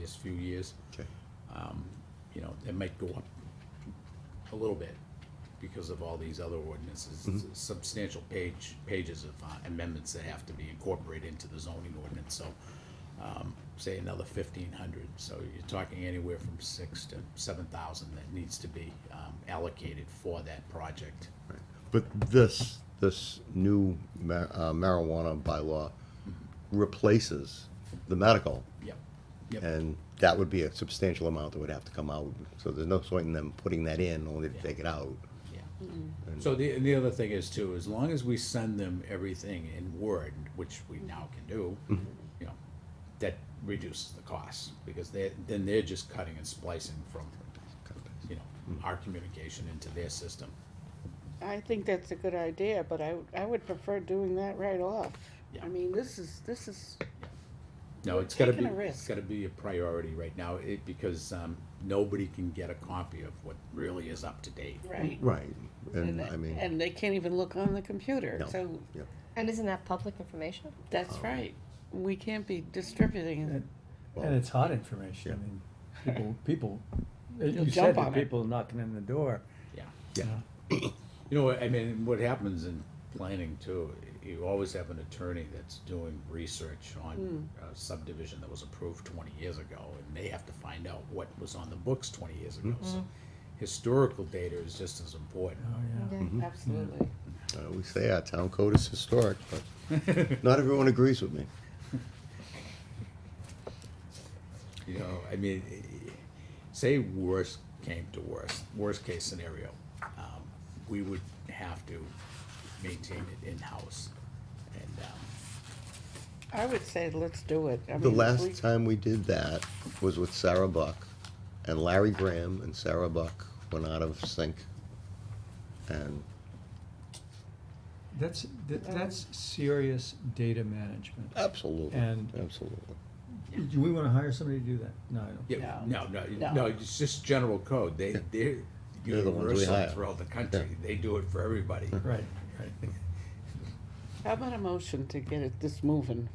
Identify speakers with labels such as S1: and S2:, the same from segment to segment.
S1: this few years.
S2: Okay.
S1: Um, You know, it might go up a little bit because of all these other ordinances, substantial page, pages of uh, amendments that have to be incorporated into the zoning ordinance, so, um, say another fifteen hundred, so you're talking anywhere from six to seven thousand that needs to be um, allocated for that project.
S2: Right. But this, this new ma- uh, marijuana bylaw replaces the medical.
S1: Yep, yep,
S2: And that would be a substantial amount that would have to come out, so there's no point in them putting that in, only to take it out.
S1: yeah.
S2: And-
S1: So the, and the other thing is too, as long as we send them everything in Word, which
S3: Mm-hmm.
S1: we now can do, you know, that reduces the costs, because they, then they're just cutting and splicing from, you know, our communication into their system.
S3: I think that's a good idea, but I, I would prefer doing that right off.
S1: Yeah.
S3: I mean, this is, this is,
S1: No, it's gotta be,
S3: taking a
S1: it's
S3: risk.
S1: gotta be a priority right now, it, because, um, nobody can get a copy of what really is up to date.
S3: right.
S2: Right, and
S3: And,
S2: I mean,
S3: and they can't even look on the computer,
S2: No. Oh.
S3: so
S2: yeah,
S4: And isn't that public information?
S3: that's right. We can't be distributing it.
S5: And it's hot information.
S2: yeah.
S5: I mean, people, people, as
S3: You'll
S5: you
S3: jump
S5: said
S3: on
S5: that
S3: it.
S5: people knocking in the door. Uh,
S1: Yeah.
S2: yeah,
S1: You know, I mean, what happens in planning too, you always have an attorney that's doing research on a subdivision that was approved twenty years ago, and they have to find out what was on the books twenty years ago, so historical data is just as important.
S5: Oh, yeah.
S3: Mm-hmm.
S2: Mm-hmm.
S3: Absolutely.
S2: Uh, we say our town code is historic, but not everyone agrees with me.
S1: You know, I mean, eh, say worst came to worst, worst case scenario, um, we would have to maintain it in-house. And, um,
S3: I would say let's do it. I
S2: The
S3: mean, we-
S2: last time we did that was with Sarah Buck, and Larry Graham and Sarah Buck went out of sync. And,
S5: That's, that, that's serious data management.
S2: Uh, absolutely,
S5: And-
S2: absolutely.
S5: Do we wanna hire somebody to do that? No, I don't.
S1: yeah, no, no,
S3: No.
S1: no, it's just general code, they, they're
S2: They're the ones we
S1: universal
S2: hire.
S1: throughout the country, they do it for everybody.
S5: Right, right.
S3: How about a motion to get it, this moving?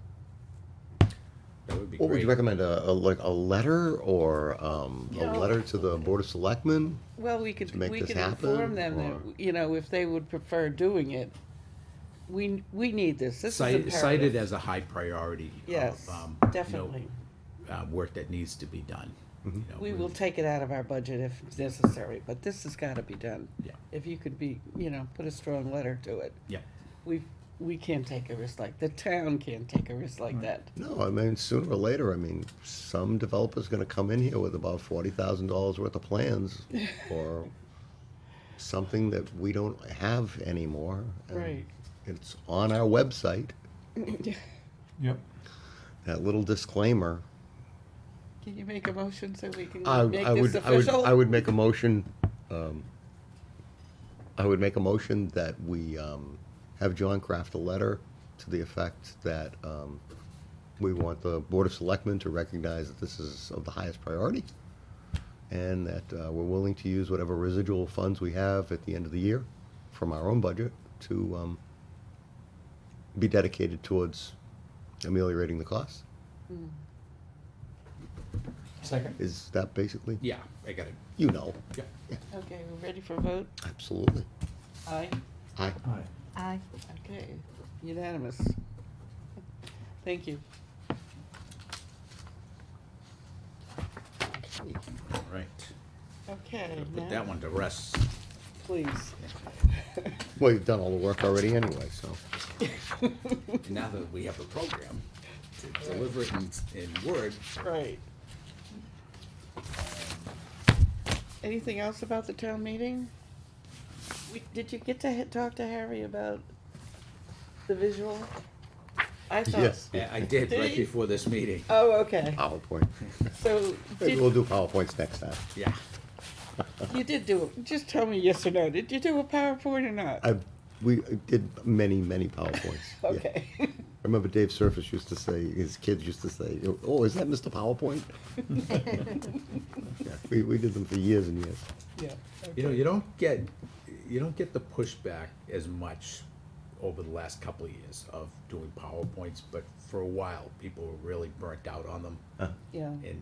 S1: That would be
S2: What would you
S1: great.
S2: recommend, a, a, like, a letter or, um, a
S3: No.
S2: letter to the Board of Selectmen?
S3: Well, we could,
S2: To make
S3: we
S2: this
S3: could
S2: happen,
S3: inform them
S2: or-
S3: that, you know, if they would prefer doing it. We, we need this. This is
S1: Cite- Cited
S3: imperative.
S1: as a high priority. of,
S3: Yes,
S1: um, you know,
S3: definitely.
S1: Uh, work that needs to be done.
S2: Mm-hmm.
S1: you know,
S3: We will take it out of our budget if necessary, but this has gotta be done.
S1: Yeah,
S3: If you could be, you know, put a strong letter to it.
S1: yeah,
S3: We, we can't take a risk like, the town can't take a risk like that.
S2: No, I mean, sooner or later, I mean, some developer's gonna come in here with about forty thousand dollars worth of plans or something that we don't have anymore. and
S3: Right.
S2: It's on our website,
S5: Yep.
S2: that little disclaimer.
S3: Can you make a motion so we can
S2: I,
S3: make
S2: I
S3: this
S2: would, I would,
S3: official?
S2: I would make a motion, um, I would make a motion that we, um, have John craft a letter to the effect that, um, we want the Board of Selectmen to recognize that this is of the highest priority and that, uh, we're willing to use whatever residual funds we have at the end of the year from our own budget to, um, be dedicated towards ameliorating the costs.
S3: Hmm.
S5: Second?
S2: Is that basically,
S1: yeah, I got it,
S2: you know,
S1: yeah.
S3: Okay, we're ready for vote?
S2: absolutely.
S3: Aye.
S2: Aye.
S5: All right.
S4: Aye.
S3: Okay, unanimous. Thank you.
S1: All right,
S3: Okay,
S1: Gotta put that
S3: now,
S1: one to rest.
S3: please.
S2: Well, you've done all the work already anyway, so.
S1: And Now that we have a program to deliver it in, in Word,
S3: Right. Anything else about the town meeting? We, did you get to ha- talk to Harry about the visual? I thought.
S2: Yes.
S1: I I did right
S3: Dave?
S1: before this meeting,
S3: Oh, okay,
S2: PowerPoint.
S3: so,
S2: Maybe we'll
S3: did,
S2: do PowerPoints next time.
S1: yeah.
S3: you did do, it. just tell me yes or no, did you do a PowerPoint or not?
S2: I, we did many, many PowerPoints. yeah.
S3: Okay,
S2: I remember Dave Surface used to say, his kids used to say, oh, is that Mr. PowerPoint? Yeah, We, we did them for years and years.
S3: yeah,
S1: You know, you don't get, you don't get the pushback as much over the last couple of years of doing PowerPoints, but for a while, people were really burnt out on them.
S3: yeah,
S1: And